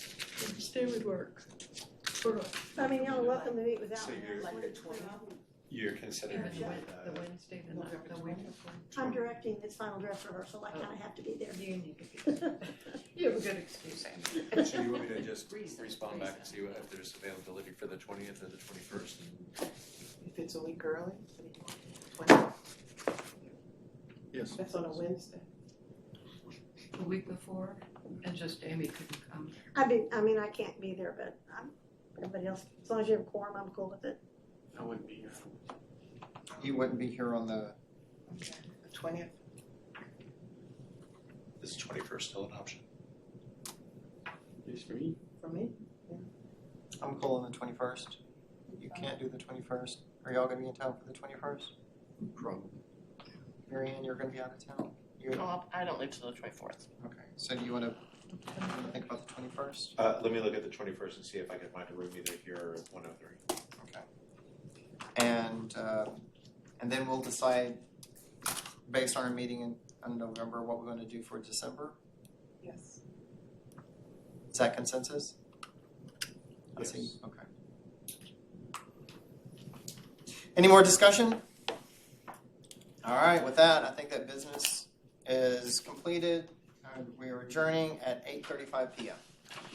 Tuesday would work. For, I mean, y'all are welcome to meet without So me. you're- Like the twelfth, You're considering Yeah. uh, the Wednesday, the night, the week before. I'm directing this final dress rehearsal, I kinda have to be there. You need to be, you have a good excuse, Amy. So you want me to just Reason, respond back and reason. see what, if there's availability for the twentieth or the twenty-first? If it's a week early, twenty, Yes. that's on a Wednesday. The week before, and just Amy couldn't come. I mean, I mean, I can't be there, but I'm, everybody else, as long as you have quorum, I'm cool with it. I wouldn't be here. You wouldn't be here on the, The twentieth, Is twenty-first still an option? Yes, for me. for me, I'm cool on the twenty-first. You can't do the twenty-first. Are y'all gonna be in town for the twenty-first? Probably. Mary Ann, you're gonna be out of town? You, No, I don't leave till the twenty-fourth. okay, so do you wanna, you wanna think about the twenty-first? Uh, let me look at the twenty-first and see if I can find a room either here or at one oh three. Okay. And, uh, and then we'll decide, based on our meeting in, in November, what we're gonna do for December. yes. Is that consensus? I see, Yes. okay. Any more discussion? All right, with that, I think that business is completed. and We are adjourning at eight thirty-five PM.